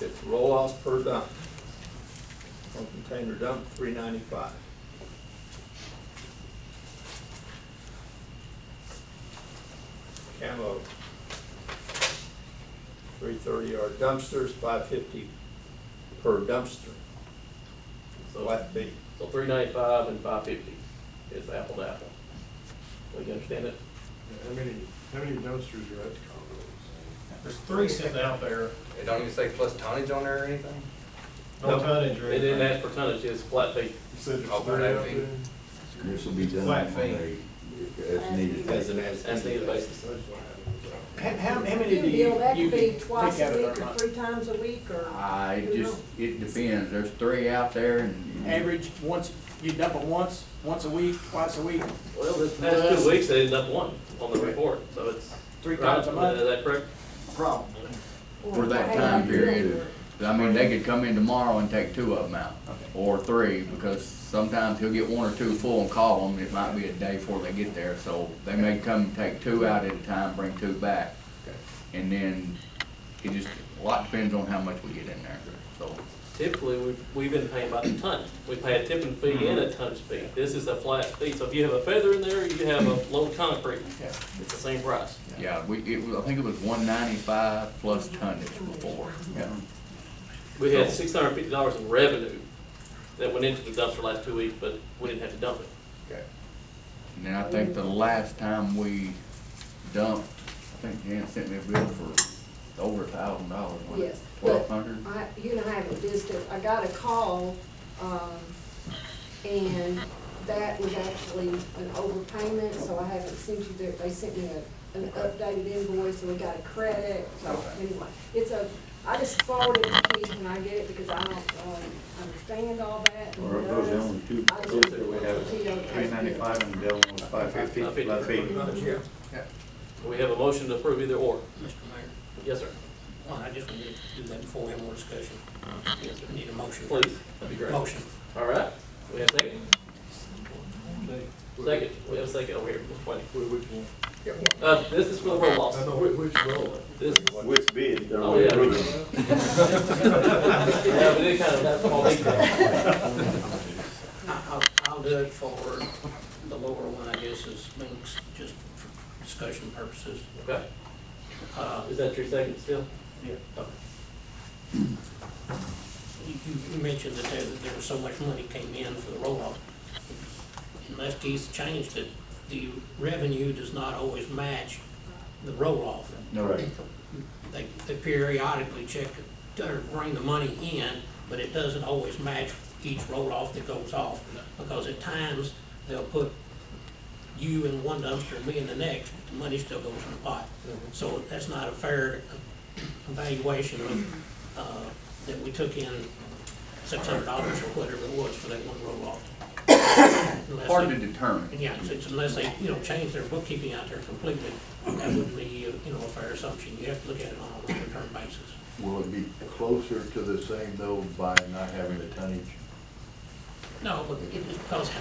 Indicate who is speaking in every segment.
Speaker 1: It's roll offs per dump. One container dump, three ninety-five. Camo. Three thirty yard dumpsters, five fifty per dumpster,
Speaker 2: So,
Speaker 1: flat fee.
Speaker 2: so three ninety-five and five fifty is apple to apple. Do you understand it?
Speaker 3: How many, how many dumpsters are at the
Speaker 4: There's three sitting out there,
Speaker 5: It don't even say plus tonnage on there or anything?
Speaker 4: no
Speaker 1: Nope.
Speaker 4: tonnage or
Speaker 2: They didn't
Speaker 4: anything.
Speaker 2: ask for tonnage, it's flat fee.
Speaker 3: You said there's
Speaker 5: Oh,
Speaker 3: three out
Speaker 5: fee.
Speaker 3: there?
Speaker 6: This will be done on
Speaker 4: Flat
Speaker 6: a, as needed.
Speaker 1: As an as.
Speaker 2: As needed basis.
Speaker 4: How, how how many
Speaker 7: Get
Speaker 4: do
Speaker 7: a
Speaker 4: you,
Speaker 7: bill, that
Speaker 4: you
Speaker 7: could be
Speaker 4: can pick out
Speaker 7: twice
Speaker 4: of
Speaker 7: a
Speaker 4: there
Speaker 7: week
Speaker 4: a
Speaker 7: or
Speaker 4: month?
Speaker 7: three times a week or.
Speaker 6: I
Speaker 7: you
Speaker 6: just, it depends, there's three out there and.
Speaker 8: Average, once, you dump it once, once a week, twice a week,
Speaker 2: Well, this past two weeks, they ended up one on the report, so it's.
Speaker 8: three times a
Speaker 2: Right,
Speaker 8: month.
Speaker 2: Is that correct?
Speaker 8: Problem.
Speaker 7: know,
Speaker 6: For
Speaker 7: or
Speaker 6: that
Speaker 7: how
Speaker 6: time
Speaker 7: you do
Speaker 6: period.
Speaker 7: it.
Speaker 6: I mean, they could come in tomorrow and take two of them out, or three, because sometimes he'll get one or two full and call them, it might be a day before they get there, so they may come and take two out at a time, bring two back. And then, it just, a lot depends on how much we get in there, so.
Speaker 2: Typically, we've, we've been paying by the ton. We pay a tipping fee and a tonnage fee. This is a flat fee, so if you have a feather in there, you have a load of concrete,
Speaker 8: Yeah.
Speaker 2: it's the same price.
Speaker 6: Yeah, we, it was, I think it was one ninety-five plus tonnage before, yeah.
Speaker 2: We had six hundred and fifty dollars in revenue that went into the dumpster last two weeks, but we didn't have to dump it.
Speaker 6: Okay. And then I think the last time we dumped, I think Jan sent me a bill for over a thousand dollars, wasn't it?
Speaker 7: Yes,
Speaker 6: Twelve
Speaker 7: but
Speaker 6: hundred?
Speaker 7: I, you and I have a distant, I got a call, um, and that was actually an overpayment, so I haven't sent you the, they sent me a, an updated invoice, and we got a credit, so anyway. It's a, I just forwarded it to Keith when I get it, because I don't, um, understand all that. and does.
Speaker 6: with two
Speaker 7: I just-
Speaker 6: three ninety-five and the other one was five fifty,
Speaker 2: flat
Speaker 1: Pretty much, yeah.
Speaker 2: We have a motion to approve either or.
Speaker 9: Mr. Mayor,
Speaker 2: Yes, sir.
Speaker 9: well, I just wanted to do that before we have more discussion. We Need a motion.
Speaker 2: Please, that'd be great.
Speaker 9: Motion.
Speaker 2: All right, we have a second? Second, we have a second over here, Which one? Uh, this is for the roll loss.
Speaker 3: I know which row.
Speaker 2: This,
Speaker 10: Which bid? they're
Speaker 2: Oh, yeah.
Speaker 10: approving.
Speaker 2: yeah, we did kind of, that's all they
Speaker 9: I- I'll, I'll do it for the lower one, I guess, is Minks, just for discussion purposes.
Speaker 2: Okay,
Speaker 9: Uh,
Speaker 2: is that your second still?
Speaker 9: You, you mentioned that there, that there was so much money came in for the roll-off. Unless Keith changed it, the revenue does not always match the roll-off.
Speaker 6: No,
Speaker 9: They, they periodically check, or bring the money in, but it doesn't always match each roll-off that goes off. Because at times, they'll put you in one dumpster and me in the next, but the money still goes in the pot. So that's not a fair uh, evaluation of, uh, that we took in six hundred dollars or whatever it was for that one roll-off. Unless
Speaker 6: hard
Speaker 9: they-
Speaker 6: to determine.
Speaker 9: and Yeah, it's- it's unless they, you know, change their bookkeeping out there completely, that wouldn't be, uh, you know, a fair assumption. You have to look at it on a longer term basis.
Speaker 10: Will it be closer to the same though by not having the tonnage?
Speaker 9: No, but it depends how.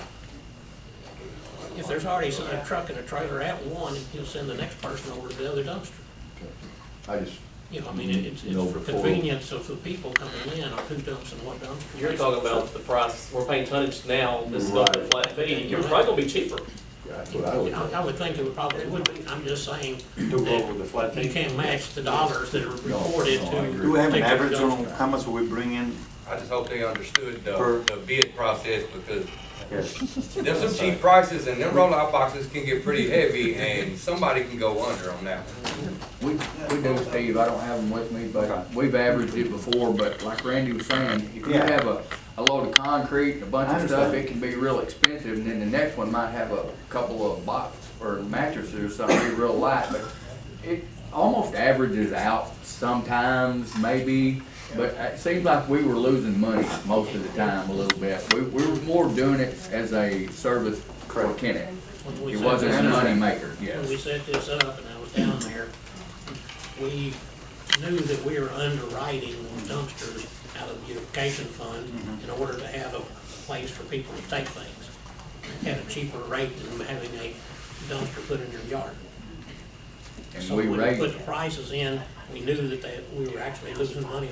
Speaker 9: If there's already some- a truck and a trailer at one, you'll send the next person over to the other dumpster.
Speaker 10: I just,
Speaker 9: You know, I mean, it- it's, it's
Speaker 10: No,
Speaker 9: for
Speaker 10: before-
Speaker 9: convenience of the people coming in on who dumps and what dumpster.
Speaker 2: You're talking about the price, we're paying tonnage now, this is going to be a flat fee, you're probably gonna be cheaper.
Speaker 10: that's what I would.
Speaker 9: I I would think it would probably, it would be, I'm just saying,
Speaker 3: Do over the flat
Speaker 9: you can't match the dollars that are reported
Speaker 6: no, I
Speaker 9: to.
Speaker 6: agree.
Speaker 11: Do we have an
Speaker 9: take the
Speaker 11: average on
Speaker 9: dumpster.
Speaker 11: how much we bring in?
Speaker 5: I just hope they understood the,
Speaker 11: Per-
Speaker 5: the bid process because there's some cheap prices and them roll-out boxes can get pretty heavy and somebody can go under on that.
Speaker 6: We, we do, Steve, I don't have them with me, but we've averaged it before, but like Randy was saying, if you
Speaker 11: Yeah.
Speaker 6: have a, a load of concrete, and a bunch
Speaker 11: I
Speaker 6: of stuff,
Speaker 11: understand.
Speaker 6: it can be real expensive, and then the next one might have a couple of box or mattresses or something, be real light, but it almost averages out sometimes, maybe, but it seems like we were losing money most of the time a little bit. We, we were more doing it as a service for Kenneth.
Speaker 9: When we
Speaker 6: It
Speaker 9: set
Speaker 6: wasn't
Speaker 9: this
Speaker 6: a
Speaker 9: up-
Speaker 6: moneymaker, yes.
Speaker 9: When we set this up and I was down there, we knew that we were underwriting dumpsters out of the beautification fund in order to have a place for people to take things at a cheaper rate than having a dumpster put in your yard.
Speaker 6: And
Speaker 9: So
Speaker 6: we
Speaker 9: when we
Speaker 6: raised.
Speaker 9: put the prices in, we knew that they, we were actually losing money